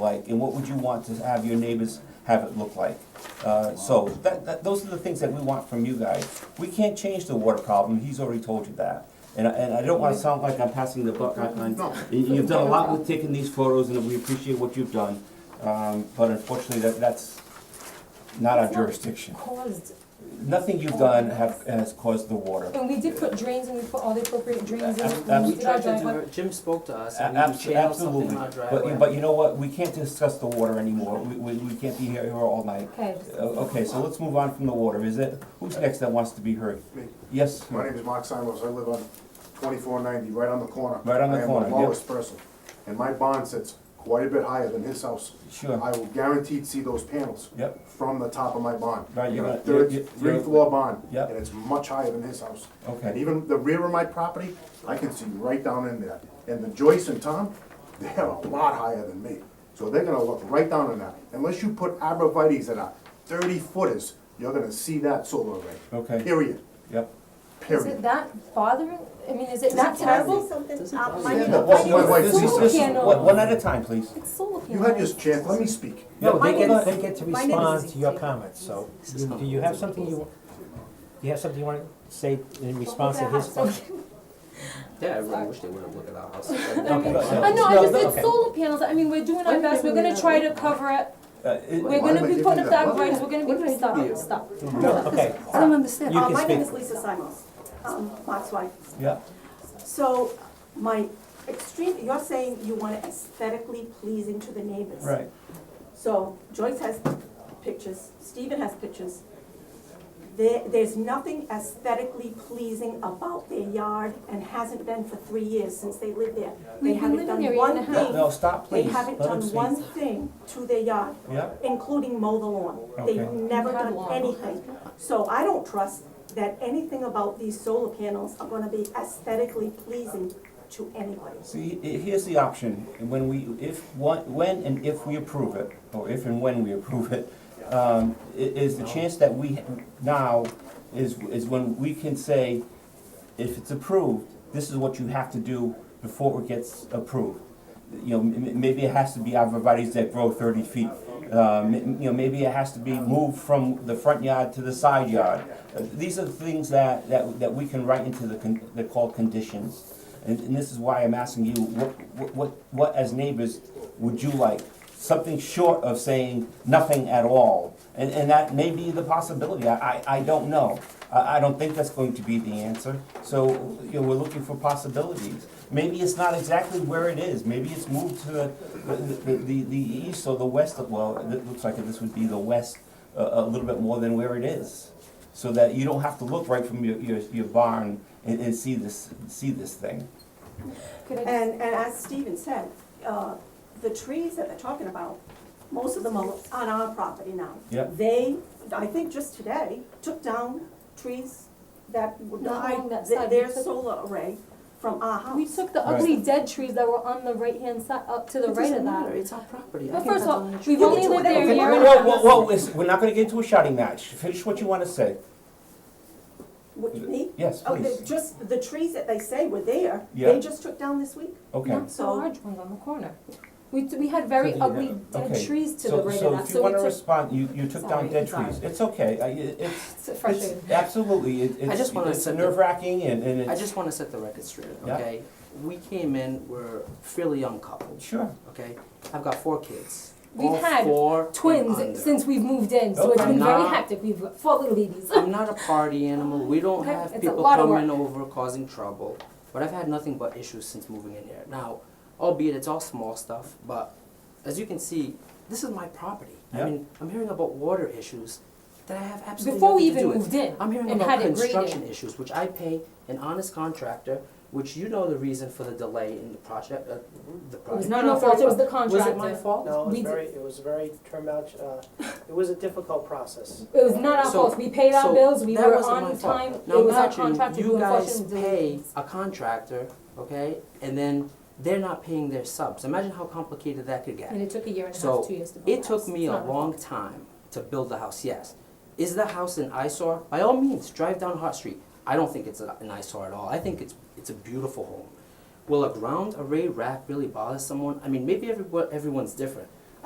like, and what would you want to have your neighbors have it look like? Uh, so, that, that, those are the things that we want from you guys. We can't change the water problem, he's already told you that. And, I- and I don't wanna sound like I'm passing the buck on, on- No. you- you've done a lot with taking these photos, and we appreciate what you've done. Um, but unfortunately, that, that's not our It's not- jurisdiction. caused, Nothing you've done have, has caused the water. and we did put drains and we put all the appropriate drains in. Ab- and ab- we We did our tried to do driveway. it, Jim spoke to us, and we Abs- channeled something Absolutely, in our driveway. but, but you know what, we can't discuss the water anymore, we, we, we can't be here here all night. Okay, Uh, Okay, so let's move on from the water, is it, who's next that wants to be heard? Me. Yes, My name is Mark Simons, I live on twenty-four ninety, right on the corner. Right on the corner, I am yep. the lowest person, and my bond sits quite a bit higher than his house. sure, I will guaranteed see those panels yep, from the top of my bond. Right, you're gonna- Third, you're- you're- three floor bond, Yep. and it's much higher than his house. And okay, even the rear of my property, I can see right down in there. And the Joyce and Tom, they're a lot higher than me. So they're gonna look right down in that. Unless you put arborvitae's that are thirty footers, you're gonna see that solar array. okay, Period, yep. is period. it that bothering, I mean, is it that terrible? Something, uh, my my name- Well, my Well, wife- this is- this is- one one at a time, please. It's solar panels. You had your chance, let me speak. No, My they get, name they is- get to my name is respond to your Zeke. comments, so, you- do you have something you, do you have something you wanna say in Well, response to his? perhaps, question? okay. Yeah, I really wish they would have looked at our house. I mean, Okay, so- I know, I just, no, it's okay. solar panels, I mean, we're doing our Why best, we're didn't gonna we try do to cover it, Uh, it- we're Why gonna would be they putting do up that? that we're gonna What did be, I stop, do? stop. No, okay, I Ah. don't understand. You Uh, can My name speak. is Lisa Simons, um, Mark's wife. Yeah, So my extreme, you're saying you want it aesthetically pleasing to the neighbors. right, So Joyce has pictures, Stephen has pictures. There, there's nothing aesthetically pleasing about their yard and hasn't been for three years since they lived there. We've They been haven't living there a done year one and a half. thing, no, stop, they please, let haven't him done speak. one thing to their yard. Yeah, including mow the lawn. They've Okay. never Mow the done lawn. anything. So I don't trust that anything about these solar panels are gonna be aesthetically pleasing to anybody. See, i- here's the option, when we, if, one- when and if we approve it, or if and when we approve it, um, i- is the chance that we, ha- now, is, is when we can say, if it's approved, this is what you have to do before it gets approved. You know, m- m- maybe it has to be arborvitae's that grow thirty feet. Uh, m- m- you know, maybe it has to be moved from the front yard to the side yard. Uh, These are the things that, that, that we can write into the, con- they're called conditions. And, and this is why I'm asking you, what, what- what, what as neighbors would you like? Something short of saying nothing at all. And, and that may be the possibility, I, I, I don't know. I, I don't think that's going to be the answer. So, you know, we're looking for possibilities. Maybe it's not exactly where it is, maybe it's moved to the, the, the, the east or the west, of- well, it looks like this would be the west a, a little bit more than where it is. So that you don't have to look right from your, your, your barn and, and see this, see this thing. Could I just- And, and as Steven said, uh, the trees that they're talking about, most of them are on our property now. Yep. They, I think just today, took down trees that would Not along that hide side. th- their We took- solar array from our house. We took the Right. ugly dead trees that were on the right-hand side, up to the It right of doesn't matter, that. it's our property. I But can first of cut all, down the tree. we've only lived there a Whoa, year and a half. whoa, whoa, listen, we're not gonna get into a shouting match, finish what you wanna say, What, me? yes, Oh, they please, just, the trees that they say were there, Yeah. they just took down this week? okay. Not so large ones on the corner. We, we had very So do you ugly dead uh, Okay. trees to the So, right so of that, if you so we wanna took, respond, you, you took down Sorry, dead sorry. trees, it's okay, I, it- it's, it's frustrating. it's, absolutely, it- I just wanna it's, it's set the- nerve wracking and, and I it's, just wanna set the record straight, Yeah. okay? We came in, we're fairly young couple, sure, okay? I've got four kids. We've All had four and under. twins since we've moved in, so it's Okay. been very Nah. hectic. We've got four little babies. I'm not a party animal, we don't Okay, have it's a people lot of coming over causing trouble, but I've had nothing but issues since moving in here. Now, albeit it's all small stuff, but as you can see, this is my property. I Yeah. mean, I'm hearing about water issues that I have absolutely Before we nothing to even do with. moved in I'm hearing and about had it graded. construction issues, which I pay an honest contractor, which you know the reason for the delay in the project, uh, the project. It was not You know our fault, it was the for- contractor. Was it my fault? No, it was We did- very, it was very turned out, uh, it was a difficult process. It was not our So- fault. We paid our so bills, we that were wasn't my on fault. time. Now It was our imagine contractor who you guys unfortunately pay delayed. a contractor, okay, and then they're not paying their subs. Imagine how complicated that And could get. it took a year and a So, half, two years to build It the took house. me It's a not our long time to build the house, yes. Is the house an eyesore? By all means, drive down Hart Street. I don't think it's a- an eyesore at all. I think it's, it's a beautiful home. Will a ground array rack really bother someone? I mean, maybe everyone, everyone's different.